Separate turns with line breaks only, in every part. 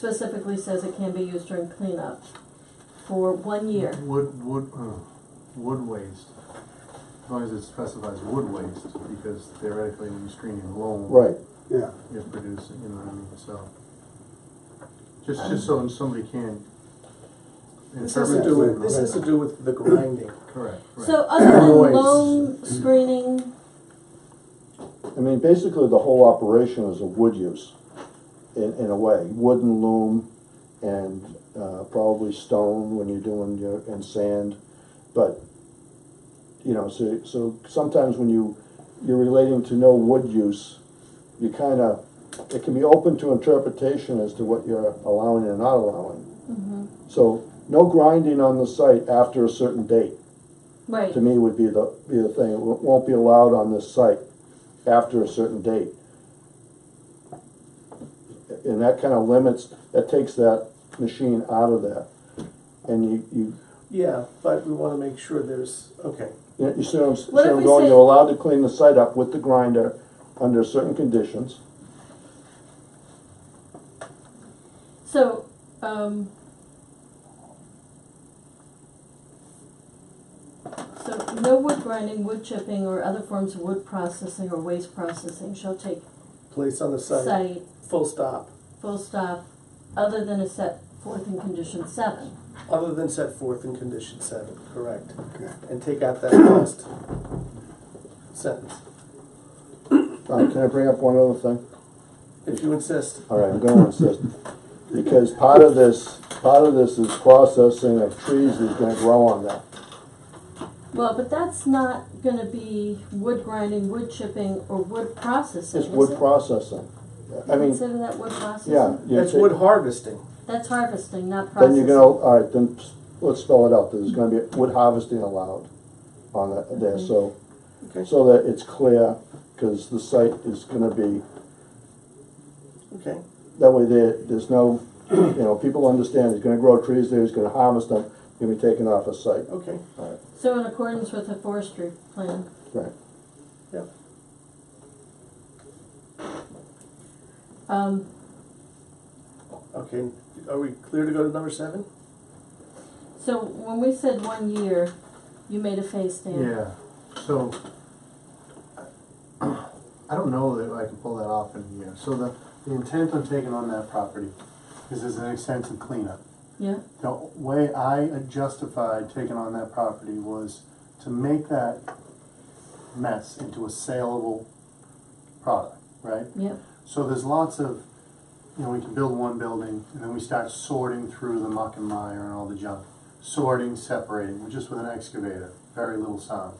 specifically says it can be used during cleanup for one year.
Wood, wood, uh, wood waste, as long as it specifies wood waste, because theoretically, when you screen your loam.
Right,
Yeah,
You're producing, you know what I mean, so. Just, just so somebody can.
This has to do with, this has to do with the grinding.
Correct, right.
So other than
Noise.
loam screening,
I mean, basically the whole operation is a wood use, in, in a way, wooden loom and, uh, probably stone when you're doing your, and sand, but, you know, so, so sometimes when you, you're relating to no wood use, you kinda, it can be open to interpretation as to what you're allowing and not allowing. So, no grinding on the site after a certain date.
right,
to me would be the, be the thing, it wo- won't be allowed on this site after a certain date. And that kind of limits, that takes that machine out of there. And you, you,
Yeah, but we wanna make sure there's, okay,
you- you see what I'm, see
What
what
if
I'm
we
going,
say-
you're allowed to clean the site up with the grinder under certain conditions.
so, um. So no wood grinding, wood chipping, or other forms of wood processing or waste processing shall take
place on the site,
site,
full stop,
full stop, other than is set forth in condition seven.
other than set forth in condition seven, correct?
okay.
And take out that last sentence,
All right, can I bring up one other thing?
if you insist.
All right, I'm going to insist, because part of this, part of this is processing of trees that's gonna grow on that.
Well, but that's not gonna be wood grinding, wood chipping, or wood processing, is
It's wood
it?
processing. I mean,
Consider that wood processing?
Yeah. you
That's
take-
wood harvesting,
That's harvesting, not
Then
processing.
you're gonna, all right, then s- let's spell it out, there's gonna be wood harvesting allowed on that, there, so,
Mm-hmm. okay,
so that it's clear, cause the site is gonna be,
okay,
that way there, there's no, you know, people understand, he's gonna grow trees there, he's gonna harvest them, gonna be taken off a site,
okay,
So in accordance with the forestry plan,
right?
yeah.
um,
Okay, are we clear to go to number seven?
so when we said one year, you made a face, Dan.
Yeah, so, I don't know that I can pull that off in a year. So the, the intent I'm taking on that property is as an extensive cleanup.
Yeah?
The way I justified taking on that property was to make that mess into a saleable product, right?
Yep.
So there's lots of, you know, we can build one building and then we start sorting through the muck and mire and all the junk. Sorting, separating, just with an excavator, very little sound.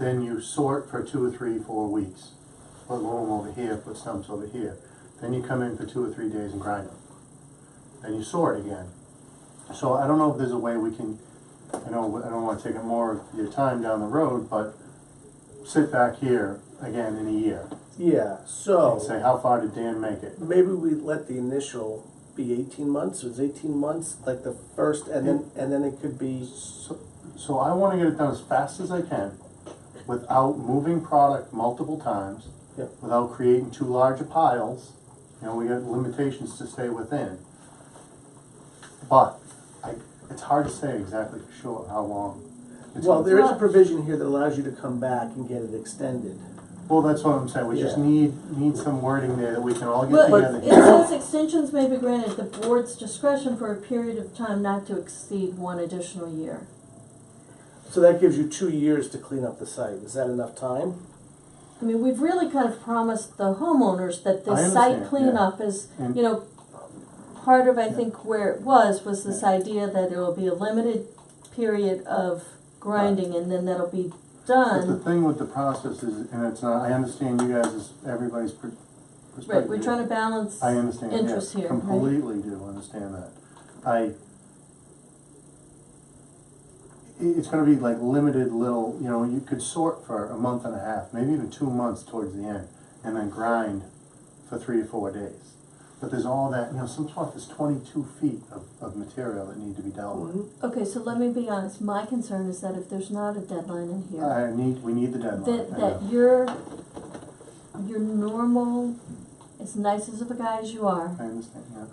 Then you sort for two or three, four weeks. Put loam over here, put stumps over here. Then you come in for two or three days and grind them. Then you sort again. So I don't know if there's a way we can, I know, I don't wanna take up more of your time down the road, but sit back here again in a year
Yeah,
and say,
so,
how far did Dan make it?
maybe we let the initial be eighteen months, it's eighteen months, like the first, and then, and then it could be.
So, so I wanna get it done as fast as I can, without moving product multiple times,
Yep.
without creating too large a piles, you know, we got limitations to stay within. But, I, it's hard to say exactly for sure how long. it's
Well,
gonna
there is a
Well-
provision here that allows you to come back and get it extended.
Well, that's what I'm saying, we just
Yeah.
need, need some wording there that we can all get
Well,
together.
it says extensions may be granted at the board's discretion for a period of time not to exceed one additional year.
So that gives you two years to clean up the site. Is that enough time?
I mean, we've really kind of promised the homeowners that
I
this
understand,
site
yeah.
cleanup is,
And-
you know, part of, I think, where it was, was this idea that there will be a limited period of grinding and then that'll be
But the
done.
thing with the process is, and it's not, I understand you guys, everybody's per- perspective.
Right, we're trying to balance.
I understand,
interest
yeah,
here, right?
completely do understand that. I, i- it's gonna be like limited little, you know, you could sort for a month and a half, maybe even two months towards the end, and then grind for three or four days. But there's all that, you know, some stuff is twenty-two feet of, of material that need to be dealt with.
Okay, so let me be honest, my concern is that if there's not a deadline in here,
I need, we need the deadline,
that,
I
that
know,
your, your normal, as nice as of a guy as you are,
I understand, yeah.